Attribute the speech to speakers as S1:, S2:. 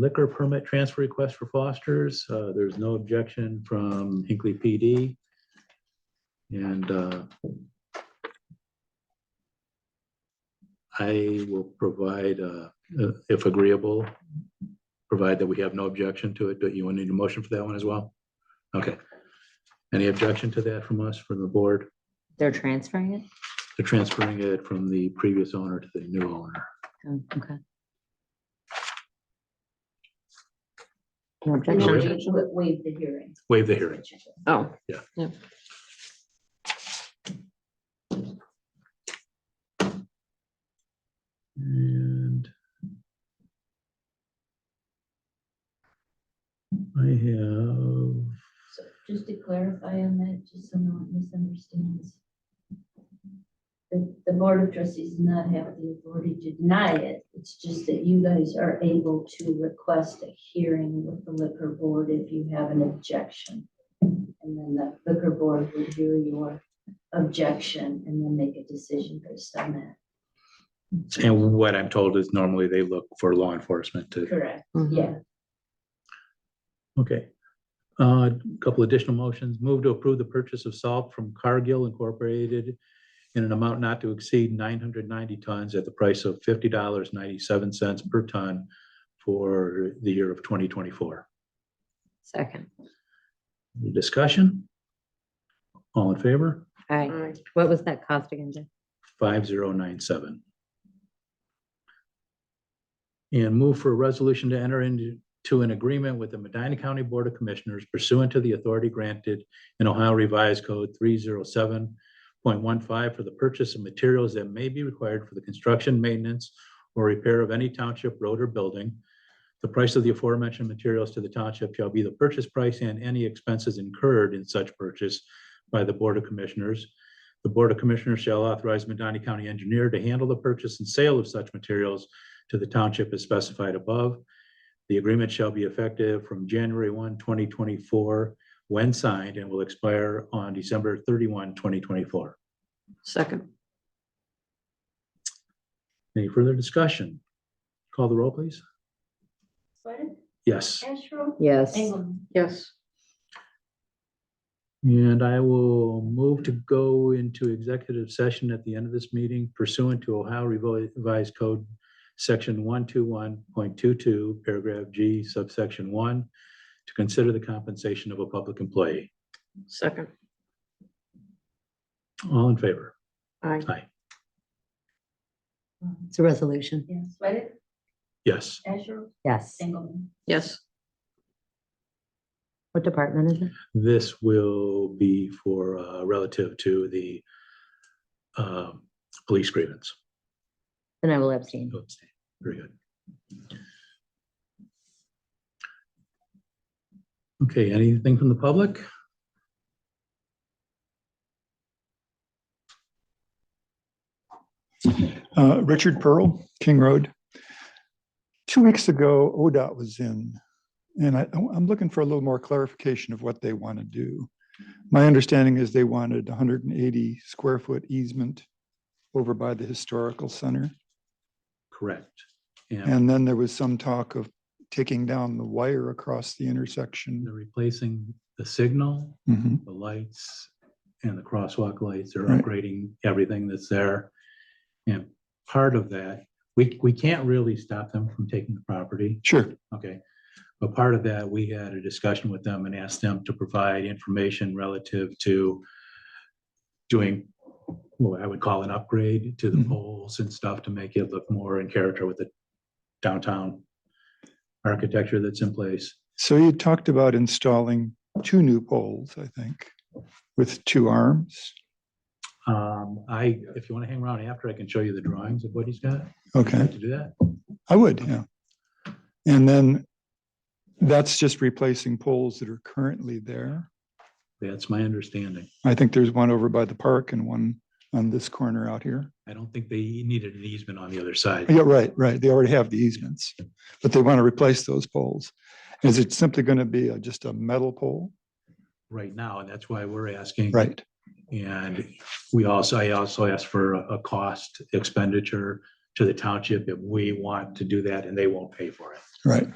S1: liquor permit transfer request for Foster's. Uh, There's no objection from Hinkley PD. And uh, I will provide, uh, uh, if agreeable, provide that we have no objection to it. Do you want to need a motion for that one as well? Okay. Any objection to that from us, from the board,
S2: They're transferring it?
S1: to transferring it from the previous owner to the new owner?
S2: Oh, Okay. No
S3: And then
S2: objection.
S3: we wa- Waive the hearing.
S1: Waive the hearing.
S2: Oh.
S1: Yeah. And I have
S3: So Just to clarify on that, just so no one misunderstands. The, the board of trustees does not have the authority to deny it. It's just that you guys are able to request a hearing with the liquor board if you have an objection. And then the liquor board would hear your objection and then make a decision based on that.
S1: And what I'm told is normally they look for law enforcement to,
S3: Correct,
S2: Mhm.
S3: yeah.
S1: okay. Uh, A couple additional motions, move to approve the purchase of salt from Cargill Incorporated in an amount not to exceed nine hundred ninety tons at the price of fifty dollars ninety-seven cents per ton for the year of twenty twenty-four.
S2: Second.
S1: Discussion? All in favor?
S2: All
S3: Mm-hmm.
S2: right. What was that cost again, Jeff?
S1: five zero nine seven. And move for a resolution to enter into to an agreement with the Medina County Board of Commissioners pursuant to the authority granted in Ohio Revised Code three zero seven point one five for the purchase of materials that may be required for the construction, maintenance, or repair of any township road or building. The price of the aforementioned materials to the township shall be the purchase price and any expenses incurred in such purchase by the Board of Commissioners. The Board of Commissioners shall authorize Medina County Engineer to handle the purchase and sale of such materials to the township as specified above. The agreement shall be effective from January 1, 2024, when signed, and will expire on December 31, 2024.
S2: Second.
S1: Any further discussion? Call the roll, please.
S3: Sweattick,
S1: Yes,
S3: Asherle,
S2: Yes.
S3: Engelmann.
S2: Yes.
S1: and I will move to go into executive session at the end of this meeting pursuant to Ohio Revised Code, section one two one point two two, paragraph G, subsection one, to consider the compensation of a public employee.
S2: Second.
S1: All in favor?
S2: All right.
S1: Aye.
S3: Um,
S2: It's a resolution.
S3: Mm-hmm. Yeah, Sweattick,
S1: Yes.
S3: Asherle,
S2: Yes.
S3: Engelmann.
S2: Yes. What department is it?
S1: This will be for uh, relative to the um, police grievance.
S2: Then I will abstain.
S1: You'll abstain. Very good. Okay, anything from the public?
S4: Uh, Richard Pearl, King Road. Two weeks ago, ODOT was in, and I, I'm looking for a little more clarification of what they want to do. My understanding is they wanted 180 square foot easement over by the historical center.
S1: Correct. And
S4: And then there was some talk of taking down the wire across the intersection.
S1: they're replacing the signal,
S4: Mhm.
S1: the lights, and the crosswalk lights. They're
S4: Right.
S1: upgrading everything that's there. And part of that, we, we can't really stop them from taking the property.
S4: Sure,
S1: Okay. But part of that, we had a discussion with them and asked them to provide information relative to doing what I would call an upgrade to the
S4: Mhm.
S1: poles and stuff to make it look more in character with the downtown architecture that's in place.
S4: so you talked about installing two new poles, I think, with two arms.
S1: Um, I, if you want to hang around after, I can show you the drawings of what he's got. Would you
S4: Okay.
S1: like To do that,
S4: I would, yeah. And then that's just replacing poles that are currently there.
S1: that's my understanding.
S4: I think there's one over by the park and one on this corner out here.
S1: I don't think they needed an easement on the other side.
S4: Yeah, right, right. They already have the easements, but they want to replace those poles. Is it simply going to be a- just a metal pole?
S1: Right now, and that's why we're asking.
S4: Right,
S1: And we also, I also asked for a a cost expenditure to the township if we want to do that and they won't pay for it.
S4: right.